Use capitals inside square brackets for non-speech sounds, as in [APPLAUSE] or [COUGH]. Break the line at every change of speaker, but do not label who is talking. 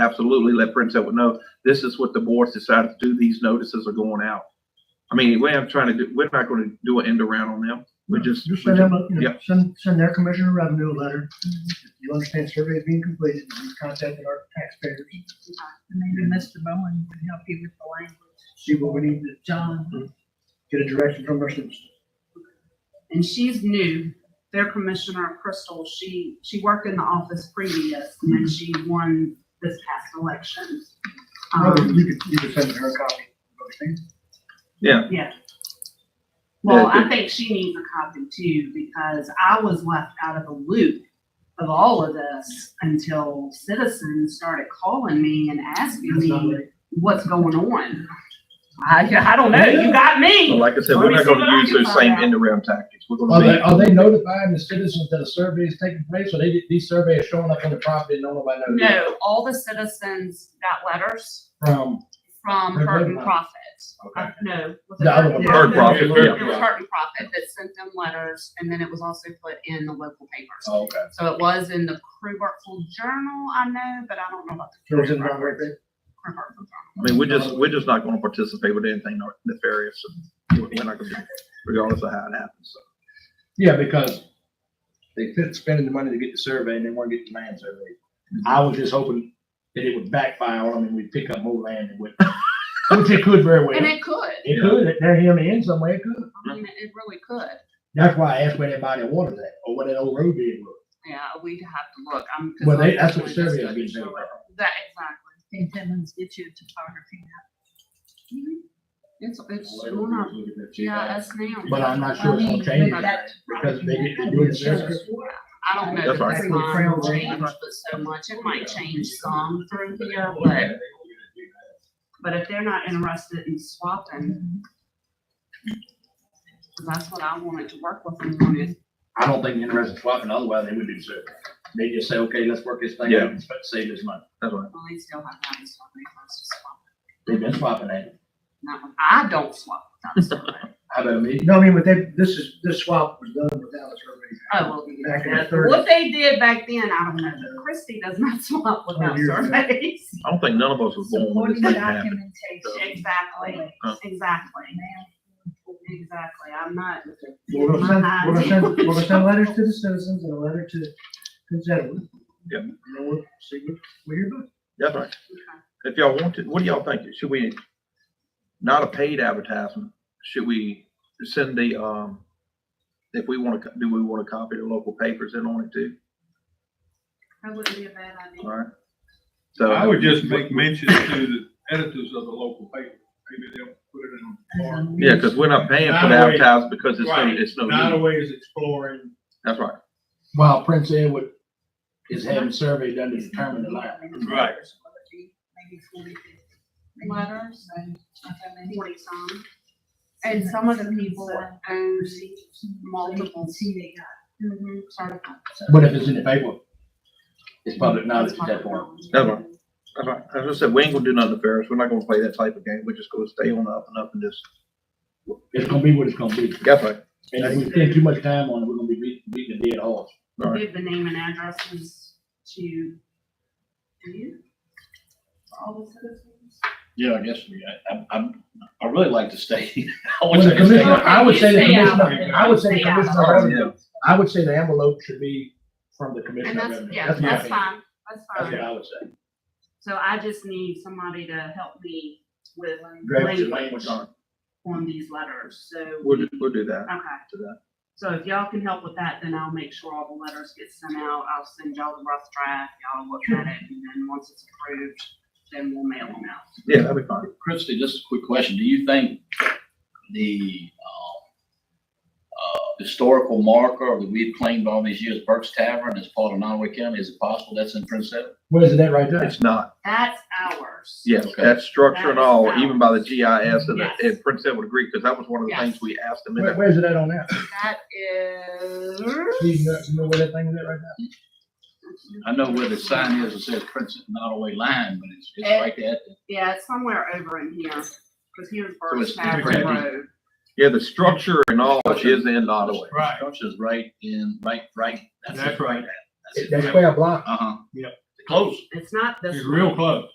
absolutely let Prince Edward know, this is what the board's decided to do, these notices are going out. I mean, we're not trying to do, we're not gonna do an end around on them, we just.
You
we
send
just-
them, a- you know,
Yep.
send, send their commissioner of revenue a letter. You understand survey is being completed, you contacted our taxpayers,
And maybe Mr. Bowen can help you with the language.
see what we need to
John,
get a direction from our citizens.
and she's new, their commissioner, Crystal, she, she worked in the office previous, and then she won this past election.
Well,
Um,
You could, you could send her a copy. okay?
yeah. Well,
Yeah,
I think she needs a copy too, because I was left out of the loop of all of this until citizens started calling me and asking
That's not
me
right.
what's going on. I, I don't know, you got
But
me.
like I said, we're not gonna use those same end around tactics, we're
Are they,
gonna
are they notifying the citizens that a survey is taking place, or they, these surveys showing up on the property and nobody knows?
No, all the citizens got letters
From,
from
They're
Hurt and
good.
Profit.
okay.
Uh, No. was it
The other one.
be hard profit, yeah.
It was Hurt and Profit that sent them letters, and then it was also put in the local papers.
Oh, Okay.
So it was in the Crew Hartsville Journal, I know, but I don't know about the
So
Crew
it's in the
Hartsville
right thing.
Crew Hartsville
I mean, we're just, we're just not gonna participate with anything nefarious, and we're we're not gonna, do it, regardless of how it happens, so.
Yeah, because they fit spending the money to get the survey and they want to get the land surveyed. I was just hoping that it would backfire on them and we'd pick up more land and would, which it could very well.
Journal. And it could,
It could, they're here in the end somewhere, it could.
I mean, it really could.
That's why I asked where that body of water is at, or where that old road did was.
Yeah, we'd have to look. I'm.
Well, they, that's what survey I get done.
That, exactly. And Timmons get you topography. Mm-hmm. It's, it's on our GIS now.
But I'm not sure it's gonna change it, because they get to do the survey.
I don't know
That's
if
right.
the time will change, but so much, it might change some through here, but, but if they're not interested in swapping, that's what I wanted to work with them on is,
I don't think they're interested in swapping, otherwise they would do so. They just say, okay, let's work this thing out and save this money.
That's right.
well, they still have that in swap, they want to swap.
They've been swapping that.
Not when- I don't swap, that's all right.
How about me?
No, I mean, but they, this is, this swap was done without a survey.
Oh, well, you
Back in
know,
the 30s.
what they did back then, I don't know, but Christie does not [LAUGHS] swap without
years ago.
surveys.
I don't think none of us was born when this
supporting
thing happened.
[LAUGHS]
documentation.
Exactly,
Oh.
Uh.
exactly, exactly, I'm not.
We're gonna send, we're gonna send, we're gonna send letters to the citizens and a letter to, to Zettlin.
Yeah.
And then we'll see what, what you're doing.
That's right. If y'all want to, what do y'all think? Should we, not a paid advertisement, should we send the, um, if we want to, do we want to copy the local papers in on it too?
That wouldn't be a bad idea.
All right. So
I would just make mention to the editors of the local paper, maybe they'll put it in a bar.
Yeah, because we're not paying for the
Not a way-
advertising because it's no,
Right.
it's no,
Not
need.
always exploring,
that's right.
While Prince Edward is having survey done to determine the land.
Right.
Maybe 40, 50.
Letters
And not that many.
forty some,
And some of the people are
own
multiple,
multiple.
see they got.
certified.
But if it's in the paper, it's public knowledge at that point.
That's right. That's right. As I said, we ain't gonna do nothing nefarious. We're not gonna play that type of game. We're just gonna stay on the up and up and just,
It's gonna be what it's gonna be.
that's right.
And if we spend too much time on it, we're gonna be beating, beating a dead horse.
All right.
Give the name and addresses to you. For all the citizens.
Yeah, I guess we, I, I'm- I'm, I really like to stay. [LAUGHS] I
Well,
wish
the
I could stay.
commissioner, I would say the
Stay out.
commissioner, I would say the
Stay out.
commissioner, of revenue- I would say the envelope should be from the
And
commissioner. of
that's,
revenue.
yeah,
my
that's
opinion.
fine, that's
That's what
fine.
I would say.
So I just need somebody to help me with
Draft your
language
language.
on these letters, so.
We'll,
we-
do- we'll do that.
Okay.
To that.
So if y'all can help with that, then I'll make sure all the letters get sent out. I'll send y'all the rough draft, y'all look at it, and then once it's approved, then we'll mail them out.
Yeah, that'd be fine.
Christie, just a quick question. Do you think the, um, uh, historical marker that we had claimed all these years, Burke's Tavern, is part of Nottaway County? Is it possible that's in Prince Edward?
Where's that right there?
It's not.
That's ours.
Yes,
Okay.
that structure and all,
That is
even by the GIS and,
Yes.
and Prince Edward agreed, because that was one of the
Yes.
things we asked them. in
Where,
there.
where's it at on that?
That is.
Do you know, you know where that thing is at right now?
I know where the sign is. It says Prince Nottaway Line, but it's,
Eh,
it's right there. at the-
Yeah, it's somewhere over in here, because here's Burke's
it's
Tavern
pretty-
Road.
Yeah, the structure and all
Structure.
is in Ottawa.
Structure's right in, right, right.
That's right.
That square block,
Uh huh.
Yep.
Close.
It's not this.
It's real close.